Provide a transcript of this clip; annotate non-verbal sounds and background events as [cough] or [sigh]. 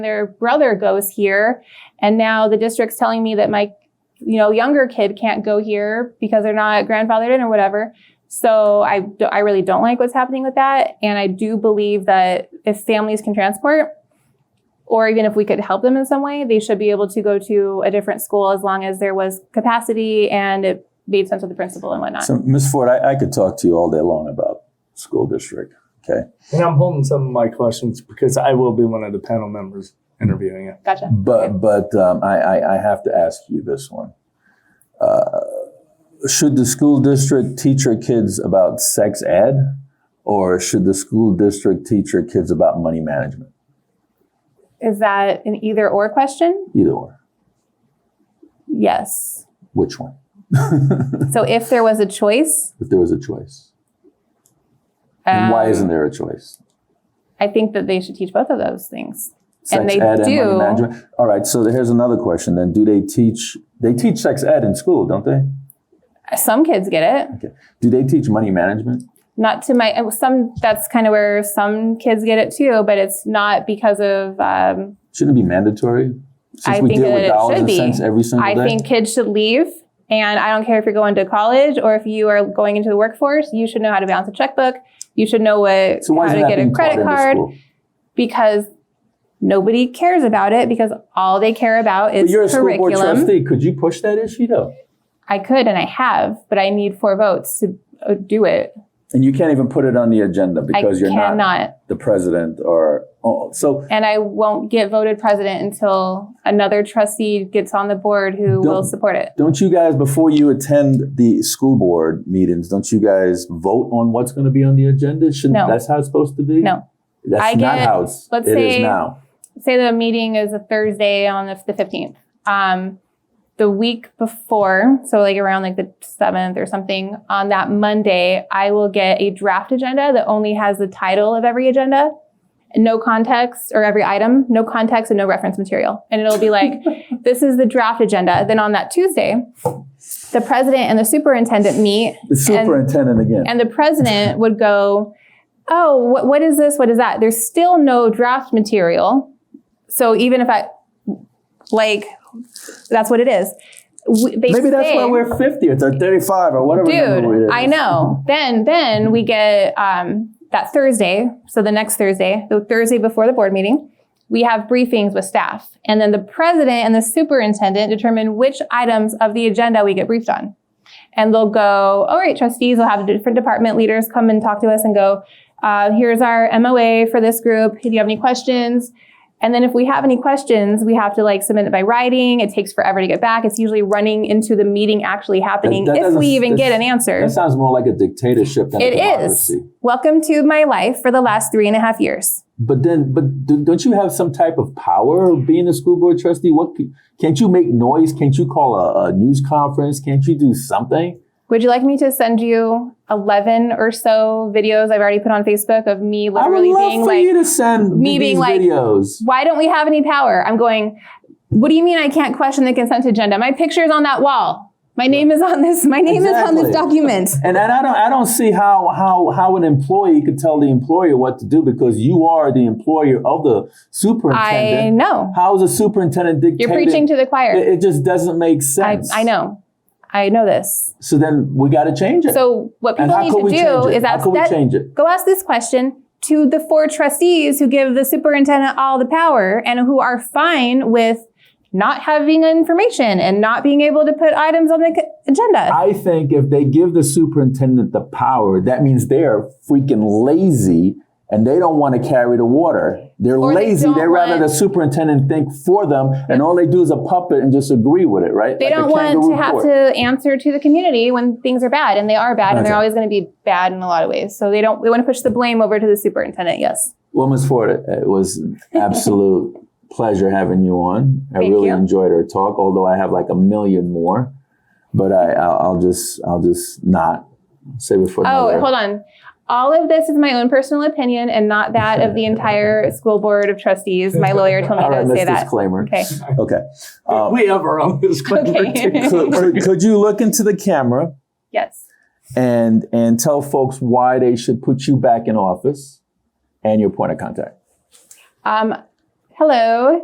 their brother goes here and now the district's telling me that my you know younger kid can't go here because they're not grandfathered in or whatever so i do- i really don't like what's happening with that and i do believe that if families can transport or even if we could help them in some way they should be able to go to a different school as long as there was capacity and it made sense with the principal and whatnot So, Ms. Ford, I, I could talk to you all day long about school district. Okay. And I'm holding some of my questions because I will be one of the panel members interviewing it. gotcha But, but um, I, I, I have to ask you this one. Uh, should the school district teach your kids about sex ed? Or should the school district teach your kids about money management? is that an either or question Either or. yes Which one? so if there was a choice If there was a choice. And why um, isn't there a choice? I think that they should teach both of those things. Sex Um, and they ed and money do. management. All right. So here's another question. Then, do they teach? They teach sex ed in school, don't they? Some kids get it. Okay. Do they teach money management? Not to my some. That's kind of where some kids get it too, but it's not because of. Um, Shouldn't it be mandatory? Since I we think deal that with it dollars should and be. cents every single I day. think kids should leave, and I don't care if you're going to college or if you are going into the workforce. You should know how to balance a checkbook. You should know what so why how isn't to that get a being credit taught in the card school? because nobody cares about it because all they care about is But you're a school board curriculum. trustee. Could you push that issue though? I could and I have, but I need four votes to uh, do it. And you can't even put it on the agenda because I you're cannot. not the president or oh, so. and I won't get voted president until another trustee gets on the board who will Don't- support it. Don't you guys, before you attend the school board meetings, don't you guys vote on what's going to be on the agenda? Shouldn't No. that's how it's supposed to be? No. that's I not get- how it's, let's it is say- now. Say the meeting is a Thursday on the the 15th. Um, the week before, so like around like the 7th or something, on that Monday, I will get a draft agenda that only has the title of every agenda, no context or every item, no context and no reference material. And it'll be like, this is the draft agenda. Then on that Tuesday, the president and the superintendent meet The superintendent again. and the president would go, "Oh, what, what is this? What is that?" There's still no draft material, so even if I like, that's what it is. W- They Maybe that's say, why we're 50th or 35 or whatever. number it dude. is. I know. then, then we get um, that Thursday. So the next Thursday, the Thursday before the board meeting. We have briefings with staff, and then the president and the superintendent determine which items of the agenda we get briefed on and they'll go, all right, trustees, we'll have different department leaders come and talk to us and go, uh, here's our MOA for this group. Do you have any questions? And then if we have any questions, we have to like submit it by writing. It takes forever to get back. It's usually running into the meeting actually happening that if doesn't- we even get an that's- answer. That sounds more like a dictatorship than It a is. democracy. Welcome to my life for the last three and a half years. But then, but d- don't you have some type of power of being a school board trustee? What c- can't you make noise? Can't you call a, a news conference? Can't you do something? Would you like me to send you 11 or so videos I've already put on Facebook of me literally I would love being for like, you to send me me being these like- videos. why don't we have any power? I'm going, what do you mean I can't question the consent agenda? My picture is on that wall. My name is on this. My name is on this Exactly. document. And, and I don't I don't see how how how an employee could tell the employer what to do because you are the employer of the I superintendent. know. How is a superintendent dictating? You're preaching to the it, choir. it just doesn't make I, sense. I know. I know this. So then we got to change it. So what and people how need could we to change do it? is how ask could we that, change it? go ask this question to the four trustees who give the superintendent all the power and who are fine with not having information and not being able to put items on the c- agenda. I think if they give the superintendent the power, that means they're freaking lazy and they don't want to carry the water. They're Or they lazy. don't They rather the want- superintendent think for them, and all they do is a puppet and just agree with it, right? They Like a don't want kangaroo to have court. to answer to the community when things are bad, and they are bad, and they're Okay. always going to be bad in a lot of ways. So they don't. They want to push the blame over to the superintendent. Yes, Well, Ms. Ford, it it was [laughs] an absolute pleasure having you on. I Thank really you. enjoyed our talk, although I have like a million more. But I, I'll, I'll just, I'll just not save it for Oh, another. hold on. All of this is my own personal opinion and not that of [laughs] the entire school board of trustees. My lawyer told me All right, not to let's say that. disclaimer. Okay. Okay. Um, we have our own [laughs] disclaimer. Okay. too. [laughs] could, could, could you look into the camera Yes. and and tell folks why they should put you back in office and your point of contact? Um, Hello.